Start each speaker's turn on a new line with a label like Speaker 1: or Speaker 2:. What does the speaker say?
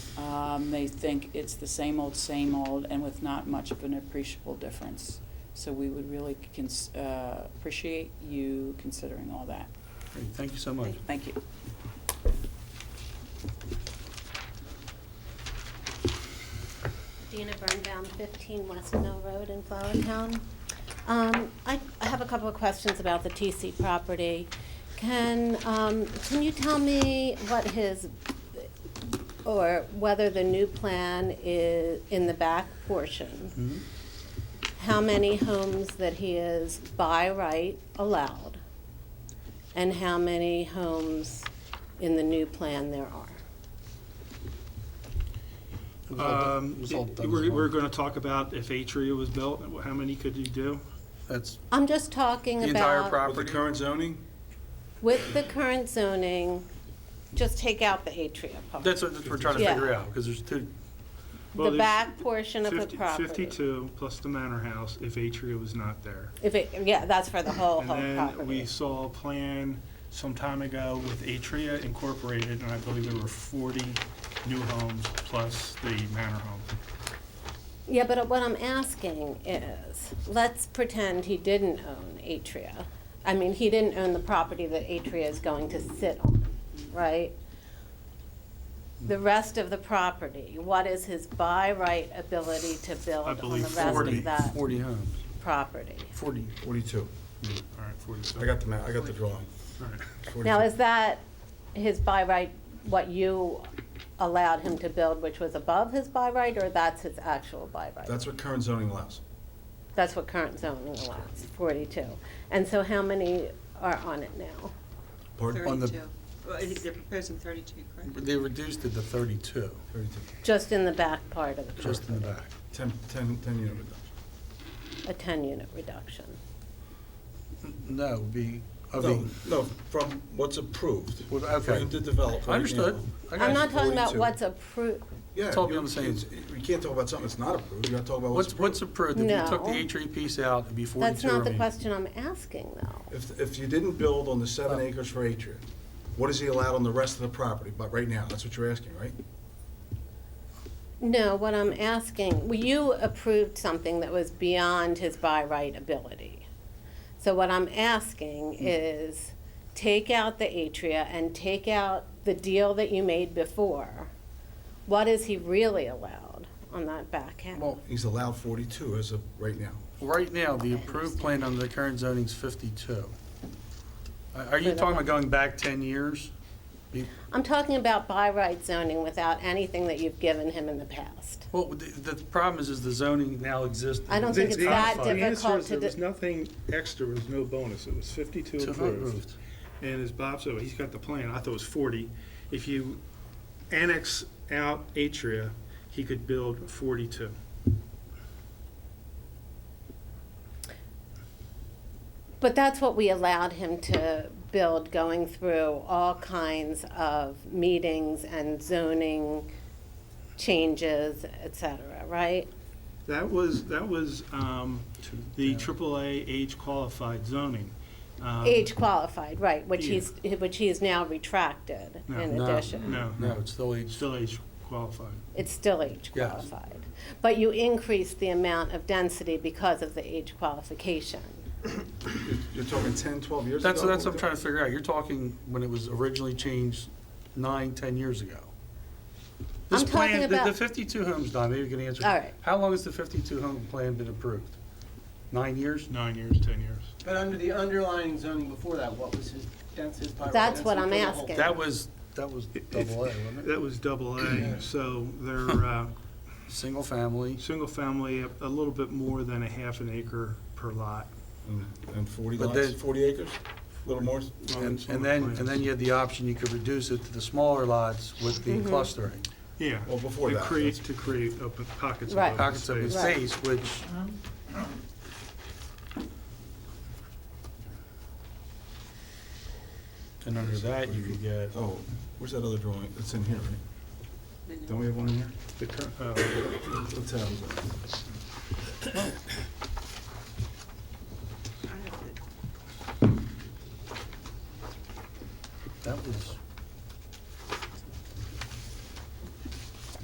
Speaker 1: Um, They think it's the same old, same old, and with not much of an appreciable difference. So we would really cons- uh, appreciate you considering all that.
Speaker 2: Great, Thank you so much.
Speaker 1: Thank you.
Speaker 3: Dina Burnbaum, 15 West Mill Road in Flowertown. Um, I I have a couple of questions about the TC property. Can, um, can you tell me what his, or whether the new plan is in the back portion?
Speaker 2: Mhm.
Speaker 4: Mm-hmm.
Speaker 3: How many homes that he is by right allowed? And how many homes in the new plan there are?
Speaker 5: It was all done- it
Speaker 2: Um,
Speaker 5: was all
Speaker 2: it-
Speaker 5: done as
Speaker 2: We're,
Speaker 5: well.
Speaker 2: we're gonna talk about if Atria was built, how many could you do?
Speaker 5: That's,
Speaker 3: I'm just talking
Speaker 4: The
Speaker 3: about.
Speaker 4: entire
Speaker 2: With the
Speaker 4: property?
Speaker 2: current zoning?
Speaker 3: With the current zoning, just take out the atrium part.
Speaker 4: That's what we're trying to
Speaker 3: Yeah.
Speaker 4: figure out, because there's two,
Speaker 2: Well,
Speaker 3: The
Speaker 2: there's
Speaker 3: back portion of the
Speaker 2: 50
Speaker 3: property.
Speaker 2: Fifty-two plus the manor house if Atria was not there.
Speaker 3: If it, yeah, that's for the whole,
Speaker 2: And
Speaker 3: whole
Speaker 2: then we
Speaker 3: property.
Speaker 2: saw a plan some time ago with Atria Incorporated, and I believe there were forty new homes plus the manor home.
Speaker 3: Yeah, but what I'm asking is, let's pretend he didn't own Atria. I mean, he didn't own the property that Atria is going to sit on, right? The rest of the property, what is his by right ability to build on the
Speaker 2: believe
Speaker 3: rest of
Speaker 2: 40.
Speaker 3: that
Speaker 5: forty homes,
Speaker 3: property?
Speaker 5: forty.
Speaker 4: Forty-two.
Speaker 2: All right, forty-two.
Speaker 4: I got the ma, I got the drawing.
Speaker 2: All right.
Speaker 3: Now,
Speaker 4: 42.
Speaker 3: is that his by right, what you allowed him to build, which was above his by right, or that's his actual by right?
Speaker 4: That's what current zoning allows.
Speaker 3: That's what current zoning allows, 42. And so how many are on it now?
Speaker 4: Pardon?
Speaker 5: On the-
Speaker 6: Thirty-two. Well, I think they're proposing thirty-two, correct?
Speaker 5: They reduced it to thirty-two,
Speaker 4: Thirty-two.
Speaker 3: Just in the back part of the
Speaker 5: just in the
Speaker 3: property,
Speaker 5: back.
Speaker 4: Ten, ten, ten unit reduction.
Speaker 3: a 10-unit reduction.
Speaker 5: No, be, I
Speaker 7: No,
Speaker 5: mean,
Speaker 7: no, from what's approved.
Speaker 5: Well, okay.
Speaker 7: From the developer.
Speaker 5: I understood. I got
Speaker 3: I'm not
Speaker 5: you.
Speaker 3: talking about
Speaker 7: 42.
Speaker 3: what's approved,
Speaker 7: Yeah.
Speaker 5: It's all beyond
Speaker 7: you-
Speaker 5: the same.
Speaker 7: it's- We can't talk about something that's not approved, you gotta talk about what's
Speaker 5: What's, what's
Speaker 7: approved.
Speaker 5: approved, if you took the
Speaker 3: No.
Speaker 5: atrium piece out, it'd be
Speaker 3: that's
Speaker 5: forty-two
Speaker 3: not the
Speaker 5: remaining.
Speaker 3: question I'm asking, though.
Speaker 7: If, if you didn't build on the seven
Speaker 5: Uh,
Speaker 7: acres for Atria, what is he allowed on the rest of the property, but right now, that's what you're asking, right?
Speaker 3: No, what I'm asking, well, you approved something that was beyond his by right ability. So what I'm asking is take out the atria and take out the deal that you made before. What is he really allowed on that back end?
Speaker 5: Well,
Speaker 7: He's allowed forty-two as of right now.
Speaker 5: right now, the approved plan under the current zoning is fifty-two. Are are you
Speaker 3: For the
Speaker 5: talking about going back ten years? Be-
Speaker 3: I'm talking about by right zoning without anything that you've given him in the past.
Speaker 5: Well, the, the problem is, is the zoning now exists.
Speaker 3: I don't think
Speaker 5: It's
Speaker 3: it's that
Speaker 5: codified.
Speaker 2: The answer
Speaker 3: difficult
Speaker 2: is
Speaker 3: to
Speaker 2: there was
Speaker 3: do.
Speaker 2: nothing extra, there was no bonus, it was fifty-two
Speaker 5: To
Speaker 2: approved.
Speaker 5: approved.
Speaker 2: And as Bob said, he's got the plan, I thought it was forty. If you annex out Atria, he could build forty-two.
Speaker 3: But that's what we allowed him to build, going through all kinds of meetings and zoning changes, et cetera, right?
Speaker 2: That was, that was um,
Speaker 5: Two
Speaker 2: the
Speaker 5: down.
Speaker 2: AAA age qualified zoning. Um,
Speaker 3: Age qualified, right, which
Speaker 2: Yeah.
Speaker 3: he's, which he is now retracted
Speaker 2: No.
Speaker 3: in
Speaker 5: No.
Speaker 3: addition.
Speaker 2: No,
Speaker 5: No, it's still E age
Speaker 2: still age qualified.
Speaker 3: It's still age
Speaker 5: Yes.
Speaker 3: qualified. But you increase the amount of density because of the age qualification.
Speaker 7: You're- You're talking 10, 12 years ago?
Speaker 5: That's, that's what I'm trying to figure out. You're talking when it was originally changed nine, ten years ago. This
Speaker 3: I'm
Speaker 5: plan-
Speaker 3: talking
Speaker 5: the- The
Speaker 3: about-
Speaker 5: fifty-two homes, Don, maybe you can answer.
Speaker 3: All right.
Speaker 5: How long has the fifty-two home plan been approved? Nine years?
Speaker 2: Nine years, 10 years.
Speaker 8: But under the underlying zoning before that, what was his density? by right
Speaker 3: That's what
Speaker 8: density
Speaker 3: I'm
Speaker 8: for the whole-
Speaker 3: asking.
Speaker 5: That was, that was double A, wasn't it?
Speaker 2: That was double A, so they're uh,
Speaker 5: Single family.
Speaker 2: single family, a a little bit more than a half an acre per lot.
Speaker 7: And- And forty
Speaker 5: But
Speaker 7: lots,
Speaker 5: then-
Speaker 7: forty acres, little more?
Speaker 2: Well,
Speaker 5: And
Speaker 2: it's on
Speaker 5: and
Speaker 2: the
Speaker 5: then,
Speaker 2: plans.
Speaker 5: and then you had the option, you could reduce it to the smaller lots with
Speaker 3: Mm-hmm.
Speaker 5: the clustering.
Speaker 2: Yeah.
Speaker 7: Well, before
Speaker 2: To
Speaker 7: that,
Speaker 2: create, to create open pockets of
Speaker 3: Right.
Speaker 2: open
Speaker 5: Pockets of
Speaker 2: space.
Speaker 3: Right.
Speaker 5: space, which, and under that, you could get.
Speaker 7: Oh, where's that other drawing? It's in here, right? Don't we have one in here?
Speaker 2: The cur- uh,
Speaker 7: What tab is that?